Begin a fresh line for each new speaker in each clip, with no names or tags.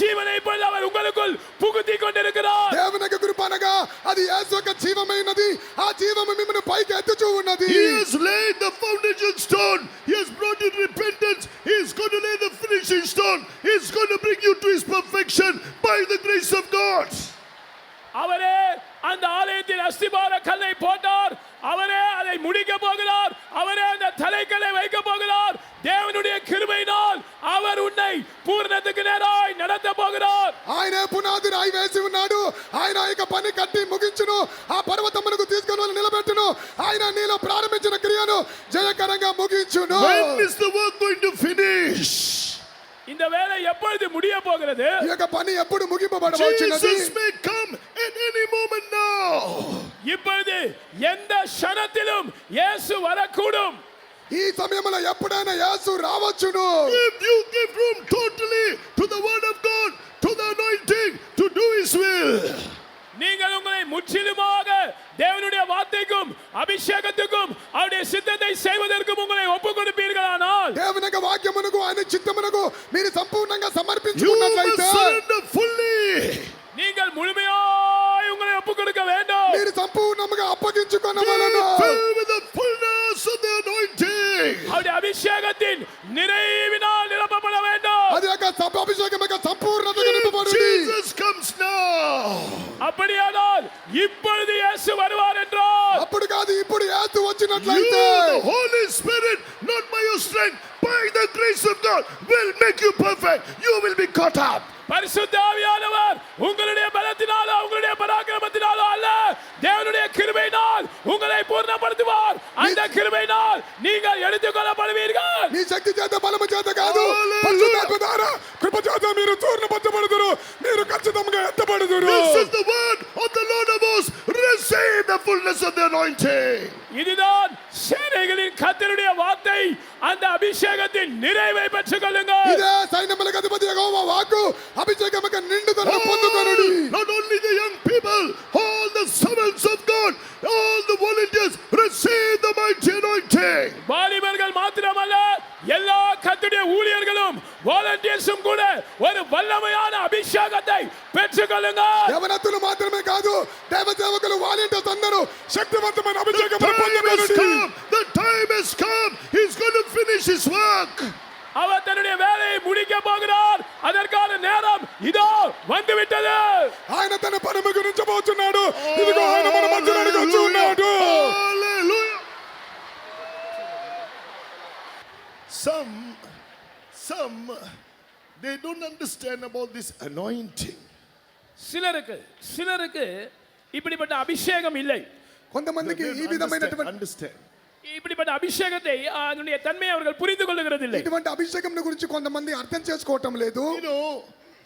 ஜீவனை போல அவர் உங்களுக்குள் புகுத்தி கொண்டிருக்கிறார்
దేవుని యొక్క కృప అనగా అది యేసు యొక్క జీవమైనది ఆ జీవము మిమ్మల్ని పైకి ఎత్తుచూ ఉన్నది
He has laid the foundation stone. He has brought in repentance. He is going to lay the finishing stone. He is going to bring you to his perfection by the grace of God.
அவரே அந்த ஆலயத்தில் அஸ்திபார கல்லை போட்டார் அவரே அதை முடிக்க போகிறார் அவரே அந்த தலைக்கல்லை வைக்க போகிறார் தேவனுடைய கிருபையினால் அவர் உன்னை பூரணத்துக்கு நேராய் நடத்த போகிறார்
ఆయనే పునాది రాయి వేసి ఉన్నాడు ఆయన ఆ యొక్క పని కట్టి ముగించును ఆ పర్వతమునకు తీసుకొని వెళ్ళి నిలబెట్టును ఆయన నీలో ప్రారంభించిన క్రియను జయకరంగా ముగించును
When is the work going to finish?
இந்த வேலை எப்பொழுது முடிய போகிறது
ఈ యొక్క పని ఎప్పుడు ముగింపబడవచ్చినది
Jesus may come at any moment now.
இப்பொழுது எந்த க்ஷணத்திலும் இயேசு வரக்கூடும்
ఈ సమయంలో ఎప్పుడైనా యేసు రావచ్చును
If you give room totally to the word of God, to the anointing, to do his will.
நீங்கள் உங்களை முற்றிலுமாக தேவனுடைய வார்த்தைக்கும் அபிஷேகத்துக்கும் அவருடைய சித்தத்தை செய்வதற்கும் உங்களை ஒப்புக் கொடுப்பீர்களானால்
దేవుని యొక్క వాక్యమునకు ఆయన చిత్తమునకు మీరు సంపూర్ణంగా
You must
సమర్పించుకున్నట్లయితే
surrender fully.
நீங்கள் முழுமையாய் உங்களை ஒப்புக் கொடுக்க வேண்டும்
మీరు సంపూర్ణముగా
Be
అప్పగించుకున్నవలను
filled with the fullness of the anointing.
அவருடைய அபிஷேகத்தின் நிறைவினால் நிரப்பப்பட வேண்டும்
అది యొక్క సబ్ అభిషేకం యొక్క సంపూర్ణత
If
నింపబడింది
Jesus comes now,
அப்படியானால் இப்பொழுது இயேசு வருவார் என்றால்
అప్పుడు కాదు ఇప్పుడు యేసు
you,
వచ్చినట్లయితే
the Holy Spirit, not by your strength, by the grace of God, will make you perfect. You will be caught up.
பரிசுத்த ஆவியானவர் உங்களுடைய பலத்தினாலோ உங்களுடைய பராக்கிரமத்தினாலோ அல்ல தேவனுடைய கிருபையினால் உங்களை பூர்ணப்படுத்துவார் அந்த கிருபையினால் நீங்கள் எடுத்துக்கொள்ளப்படுவீர்கள்
మీ శక్తి చేత బలము చేత కాదు
Hallelujah.
పరిశుద్ధాత్మ ద్వారా కృప చేత మీరు చూర్ణపరచబడుదురు మీరు ఖచ్చితంగా ఎత్తబడుదురు
This is the word of the Lord of hosts. Receive the fullness of the anointing.
இதுதான் சேனைகளின் கத்தருடைய வார்த்தை அந்த அபிஷேகத்தின் நிறைவை பெற்றுக் கொள்ளுங்கள்
ఇదే సైన్యములకు అధిపతి యెహోవా వాక్కు అభిషేకం యొక్క నిండుదలను
Oh!
పొందుకొనుడి
All, not only the young people, all the servants of God, all the volunteers, receive the mighty anointing.
வாலிபர்கள் மாத்திரமல்ல எல்லா கத்துடைய ஊழியர்களும் வாலண்டியர்ஸும் கூட ஒரு வல்லமையான அபிஷேகத்தை பெற்றுக் கொள்ளுங்கள்
యవనత్తులు మాత్రమే కాదు దేవ సేవకులు వాలంటీర్స్ అందరూ శక్తివంతమైన అభిషేకం
The time has
పొందుకొనుడి
come. The time has come. He's going to finish his work.
அவர் தன்னுடைய வேலையை முடிக்க போகிறார் அதற்கான நேரம் இதோ வந்துவிட்டது
ఆయన తన పరమ గురించి పోతున్నాడు ఇదిగో ఆయన మన మధ్యలోనికి వచ్చి ఉన్నాడు
Hallelujah. Some, some, they don't understand about this anointing.
சிலருக்கு சிலருக்கு இப்படிப்பட்ட அபிஷேகம் இல்லை
They
కొంతమందికి
don't
ఈ
understand,
విధమైనటువంటి
understand.
இப்படிப்பட்ட அபிஷேகத்தை அதனுடைய தன்மையை அவர்கள் புரிந்து கொள்ளுகிறதில்லை
ఇటువంటి అభిషేకం గురించి కొంతమంది అర్థం చేసుకోవటం లేదు
You know,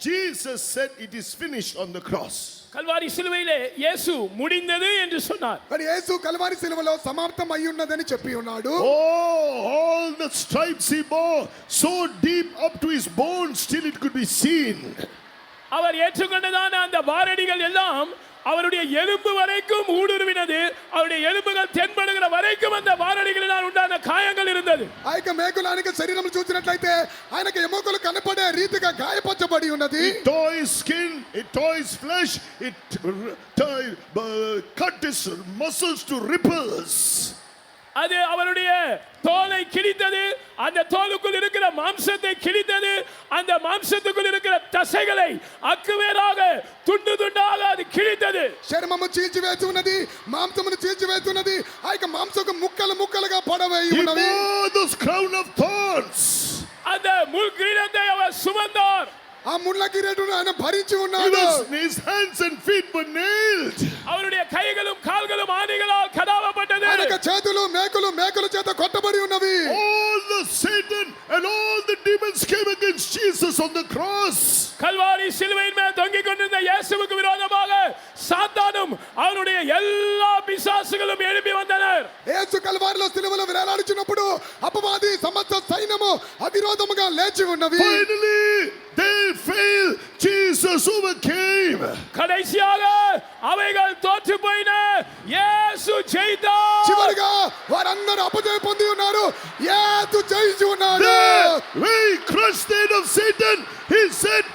Jesus said it is finished on the cross.
Kalvari சிலுவையிலே இயேசு முடிந்தது என்று சொன்னார்
మరి యేసు కలవారి సిలువలో సమాప్తం అయి ఉన్నదని చెప్పి ఉన్నాడు
Oh, all the stripes he bore, so deep up to his bones, till it could be seen.
அவர் ஏற்றுக்கொண்டதான அந்த வாரடிகள் எல்லாம் அவருடைய எலும்பு வரைக்கும் ஊடுருவினது அவருடைய எலும்புகள் தென்படுகிற வரைக்கும் அந்த வாரடிகளினால் உண்டான காயங்கள் இருந்தது
ఆ యొక్క మేకులానికి శరీరం చూసినట్లయితే ఆయనకు ఎముకలు కనపడే రీతిగా గాయపరచబడి ఉన్నది
It tore his skin, it tore his flesh, it r- tore, uh, cut his muscles to ripples.
அது அவருடைய தோலை கிழித்தது அந்த தோலுக்குள் இருக்கிற மாம்சத்தை கிழித்தது அந்த மாம்சத்துக்குள் இருக்கிற தசைகளை அக்குவேராக துண்டு துண்டாக அது கிழித்தது
చర్మము చీల్చివేసి ఉన్నది మాంసమును చీల్చివేసి ఉన్నది ఆ యొక్క మాంసకు ముక్కలు ముక్కలుగా పడవేయి
He
ఉన్నవి
wore those crown of thorns.
அந்த முள் கிரீடத்தை அவர் சுமந்தார்
ఆ ముళ్ళ కిరీటును ఆయన భరించి
He
ఉన్నాడు
was, his hands and feet were nailed.
அவருடைய கைகளும் கால்களும் ஆணிகளால் கதாவப்பட்டது
ఆయన యొక్క చేతులు మేకులు మేకుల చేత కొట్టబడి ఉన్నవి
All the Satan and all the demons came against Jesus on the cross.
Kalvari சிலுவையின் மேல் தொங்கிக் கொண்டிருந்த இயேசுவுக்கு விரோதமாக சாத்தானும் அவனுடைய எல்லா பிசாசுகளும் எழுப்பி வந்தனர்
యేసు కల్వారిలో సిలువలో వేలాడుచున్నప్పుడు అపవాది సమస్త సైన్యము అవిరోధముగా లేచి ఉన్నవి
Finally, they failed. Jesus overcame.
கடைசியாக அவைகள் தோற்று போயின இயேசு ஜெயித்தார்
చివరిగా వారందరూ అపజయం పొంది ఉన్నారు యేసు జయించి ఉన్నాడు Ah.
There, he crushed the head of Satan. He said,